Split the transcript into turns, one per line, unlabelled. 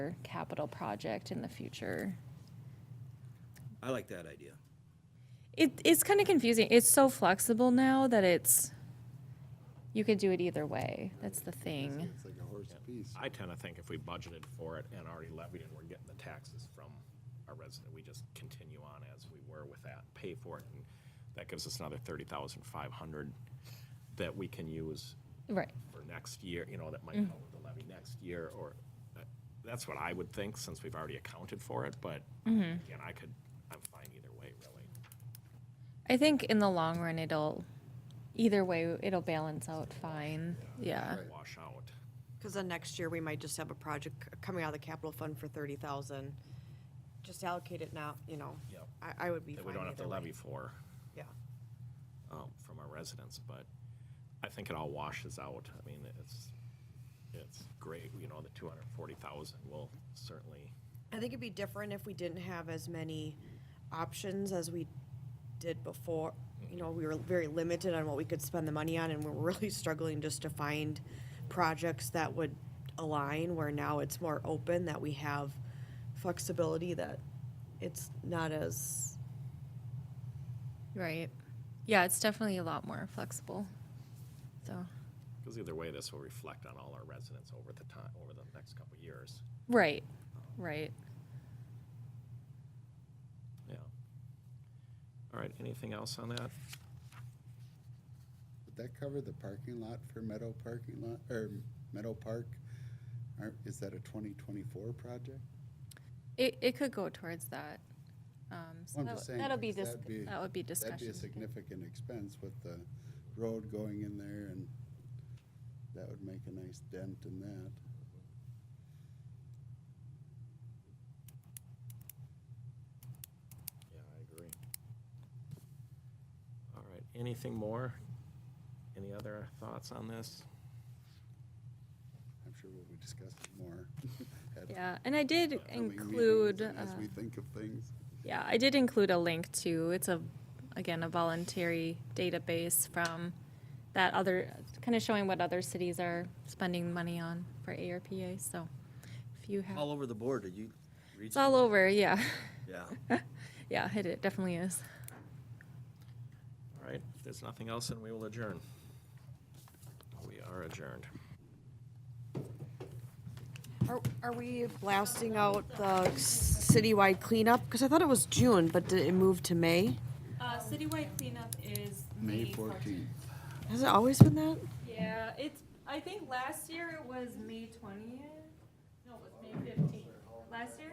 capital project in the future.
I like that idea.
It, it's kind of confusing. It's so flexible now that it's, you could do it either way. That's the thing.
It's like a horse piece.
I tend to think if we budgeted for it and already levied and we're getting the taxes from our resident, we just continue on as we were with that, pay for it. and That gives us another thirty thousand five hundred that we can use
Right.
for next year, you know, that might help with the levy next year or, uh, that's what I would think since we've already accounted for it, but again, I could, I'm fine either way, really.
I think in the long run, it'll, either way, it'll balance out fine. Yeah.
Wash out.
Because then next year, we might just have a project c- coming out of the capital fund for thirty thousand. Just allocate it now, you know.
Yep.
I, I would be fine
that we don't have to
either way.
levy for
Yeah.
um, from our residents, but I think it all washes out. I mean, it's, it's great, you know, the two hundred and forty thousand will certainly,
I think it'd be different if we didn't have as many options as we did before. You know, we were very limited on what we could spend the money on, and we're really struggling just to find projects that would align, where now it's more open, that we have flexibility, that it's not as,
Right. Yeah, it's definitely a lot more flexible. So,
because either way, this will reflect on all our residents over the time, over the next couple of years.
right, right.
Yeah. All right, anything else on that?
Would that cover the parking lot for Meadow parking lot, or Meadow Park? Aren't- Is that a 2024 project?
It, it could go towards that. Um, so
I'm just
that'll,
saying,
that'll be,
because
dis-
that'd be-
that would be
That'd be
discussion.
a significant expense with the road going in there and that would make a nice dent in that.
Yeah, I agree. All right, anything more? Any other thoughts on this?
I'm sure we'll be discussing more. at
Yeah, and I did
upcoming meetings
include.
and As
uh,
we think of things.
Yeah, I did include a link to, it's a, again, a voluntary database from that other, kind of showing what other cities are spending money on for ARPA, so if you have,
All over the board, did you read?
it's all over, yeah,
Yeah.
yeah, it- it definitely is.
All right, if there's nothing else, then we will adjourn. We are adjourned.
Are, are we blasting out the s- citywide cleanup? Because I thought it was June, but did it move to May?
Uh, citywide cleanup is
May 14th.
Has it always been that?
Yeah, it's, I think last year it was May twentieth, no, it was May fifteenth, last year?